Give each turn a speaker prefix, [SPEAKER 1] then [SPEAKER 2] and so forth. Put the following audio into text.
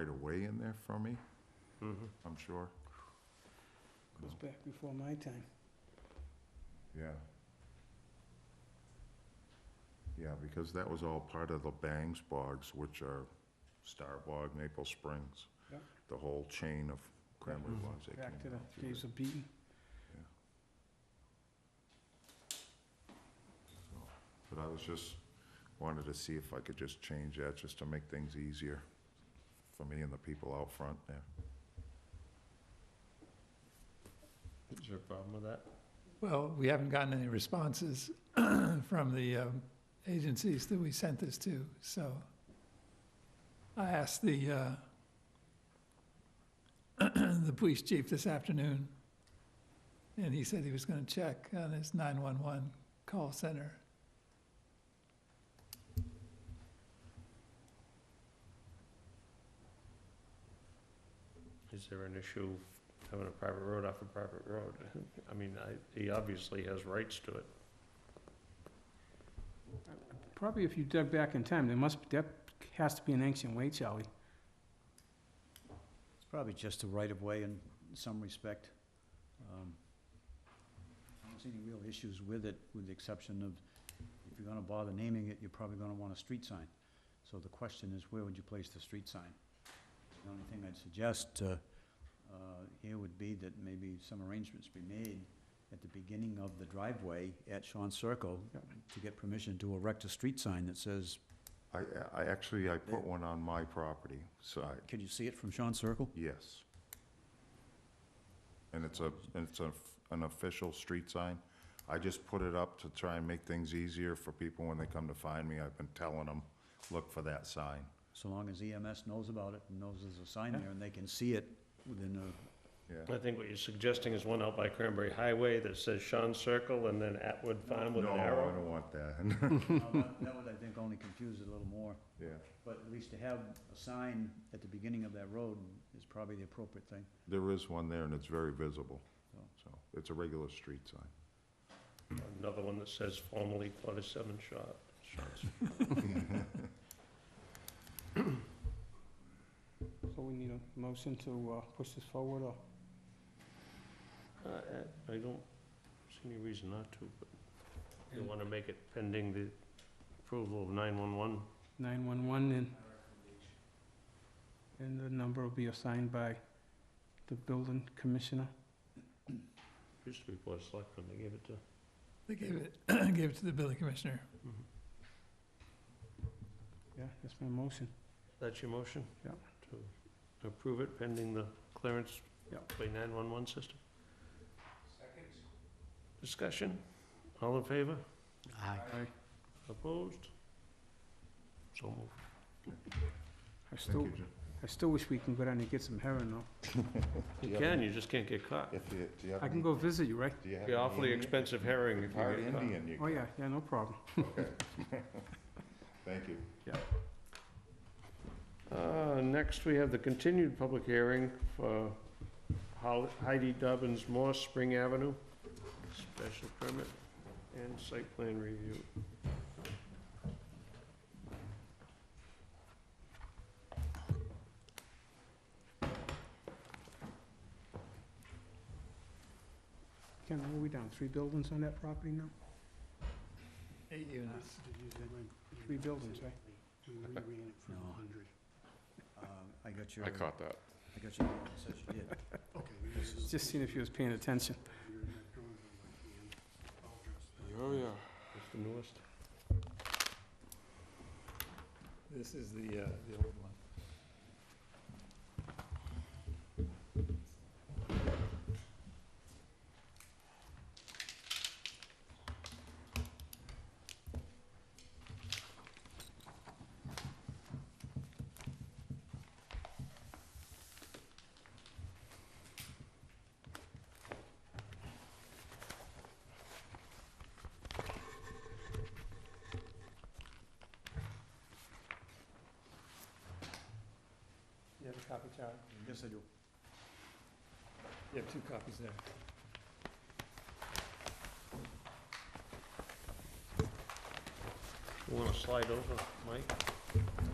[SPEAKER 1] right away in there for me, I'm sure.
[SPEAKER 2] Goes back before my time.
[SPEAKER 1] Yeah. Yeah, because that was all part of the Bangs Bogs, which are Star Bog, Maple Springs.
[SPEAKER 2] Yeah. Mm-hmm.
[SPEAKER 1] The whole chain of cranberry
[SPEAKER 3] Mhm.
[SPEAKER 1] bogs that came
[SPEAKER 2] Back to
[SPEAKER 1] out
[SPEAKER 2] the
[SPEAKER 1] through
[SPEAKER 2] days
[SPEAKER 1] there.
[SPEAKER 2] of Beaton.
[SPEAKER 1] So, But I was just, wanted to see if I could just change that, just to make things easier for me and the people out front there.
[SPEAKER 3] Is there a problem with that?
[SPEAKER 4] Well, we haven't gotten any responses from the um, agencies that we sent this to, so I asked the, uh, the police chief this afternoon, and he said he was gonna check on his 911 call center.
[SPEAKER 3] Is there an issue having a private road off a private road? I mean, I, he obviously has rights to it.
[SPEAKER 2] Probably if you dug back in time, there must, that has to be an ancient way, Charlie.
[SPEAKER 5] It's probably just a right-of-way in some respect. Um, I don't see any real issues with it, with the exception of, if you're gonna bother naming it, you're probably gonna want a street sign. So the question is, where would you place the street sign? The only thing I'd suggest, uh, uh, here would be that maybe some arrangements be made at the beginning of the driveway at Sean Circle
[SPEAKER 2] Yep.
[SPEAKER 5] to get permission to erect a street sign that says,
[SPEAKER 1] I, I actually, I put one on my property side,
[SPEAKER 5] can you see it from Sean Circle?
[SPEAKER 1] yes. And it's a, and it's a, an official street sign. I just put it up to try and make things easier for people when they come to find me. I've been telling them, look for that sign.
[SPEAKER 5] So long as EMS knows about it and knows there's a sign
[SPEAKER 2] Yeah.
[SPEAKER 5] there and they can see it within a,
[SPEAKER 1] Yeah.
[SPEAKER 3] I think what you're suggesting is one out by Cranberry Highway that says Sean Circle and then Atwood Farm with
[SPEAKER 1] No,
[SPEAKER 3] an
[SPEAKER 1] I
[SPEAKER 3] arrow.
[SPEAKER 1] don't want that.
[SPEAKER 5] Now, that that would, I think, only confuse it a little more.
[SPEAKER 1] Yeah,
[SPEAKER 5] But at least to have a sign at the beginning of that road is probably the appropriate thing.
[SPEAKER 1] there is one there and it's very visible, so it's a regular street sign.
[SPEAKER 3] Another one that says formerly forty-seven shot, shots.
[SPEAKER 2] So we need a motion to uh, push this forward or
[SPEAKER 3] Uh, I I don't see any reason not to, but you wanna make it pending the approval of nine-one-one?
[SPEAKER 2] 911 and, and the number will be assigned by the building commissioner.
[SPEAKER 3] Used to be Board of Selectmen, they gave it to.
[SPEAKER 4] They gave it, gave it to the building commissioner.
[SPEAKER 2] Yeah, that's my motion.
[SPEAKER 3] That's your motion?
[SPEAKER 2] Yeah.
[SPEAKER 3] To approve it pending the clearance
[SPEAKER 2] Yeah.
[SPEAKER 3] by nine-one-one system? Second. Discussion? All in favor?
[SPEAKER 5] Aye.
[SPEAKER 3] Opposed? So moved.
[SPEAKER 2] I
[SPEAKER 1] Thank
[SPEAKER 2] still,
[SPEAKER 1] you, Jim.
[SPEAKER 2] I still wish we can go down and get some heroin though.
[SPEAKER 3] You can, you just can't get caught.
[SPEAKER 1] If you, do you have?
[SPEAKER 2] I can
[SPEAKER 1] any-
[SPEAKER 2] go visit you, right?
[SPEAKER 1] Do you have?
[SPEAKER 3] Be
[SPEAKER 1] any
[SPEAKER 3] awfully
[SPEAKER 1] Indian?
[SPEAKER 3] expensive herring if
[SPEAKER 1] Part
[SPEAKER 3] you get caught.
[SPEAKER 1] Indian, you.
[SPEAKER 2] Oh, yeah, yeah, no problem.
[SPEAKER 1] Okay. Thank you.
[SPEAKER 3] Uh, next, we have the continued public hearing for Hol- Heidi Dobbins Moore, Spring Avenue, special permit and site plan review.
[SPEAKER 2] Ken, what are we down, three buildings on that property now?
[SPEAKER 4] Eight units.
[SPEAKER 2] Three buildings, right?
[SPEAKER 5] No. Um, I got your,
[SPEAKER 6] I
[SPEAKER 5] I
[SPEAKER 6] caught that.
[SPEAKER 5] got your, it says you did.
[SPEAKER 2] Just seeing if you was paying attention.
[SPEAKER 6] Oh, yeah.
[SPEAKER 3] It's the newest.
[SPEAKER 4] This is the, uh, the old one.
[SPEAKER 2] You have a copy, Charlie?
[SPEAKER 5] Yes, I do.
[SPEAKER 4] You have two copies there.
[SPEAKER 3] You wanna slide over, Mike?
[SPEAKER 1] No,